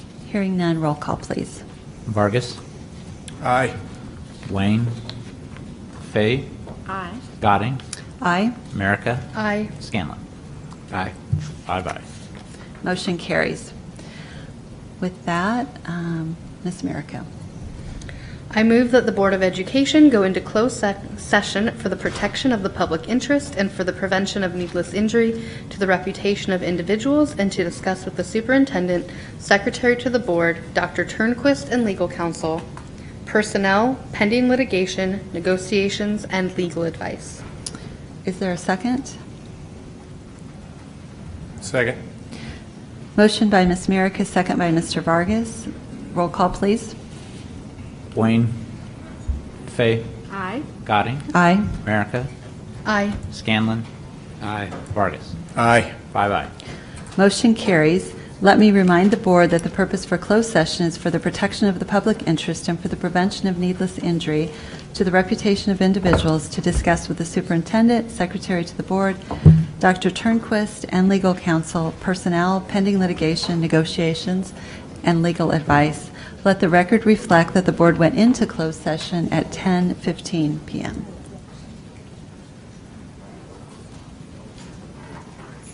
Hearing none, roll call, please. Vargas, Aye. Wayne, Fay, Aye. Gadding, Aye. America, Aye. Scanlon. Aye. Five ayes. Motion carries. With that, um, Ms. Merrick. I move that the Board of Education go into closed sec- session for the protection of the public interest and for the prevention of needless injury to the reputation of individuals and to discuss with the superintendent, secretary to the board, Dr. Turnquist, and legal counsel, personnel, pending litigation, negotiations, and legal advice. Is there a second? Second. Motion by Ms. Merrick, a second by Mr. Vargas. Roll call, please. Wayne, Fay, Aye. Gadding, Aye. America, Aye. Scanlon, Aye. Vargas. Aye. Five ayes. Motion carries. Let me remind the board that the purpose for closed session is for the protection of the public interest and for the prevention of needless injury to the reputation of individuals to discuss with the superintendent, secretary to the board, Dr. Turnquist, and legal counsel, personnel, pending litigation, negotiations, and legal advice. Let the record reflect that the board went into closed session at 10:15 PM.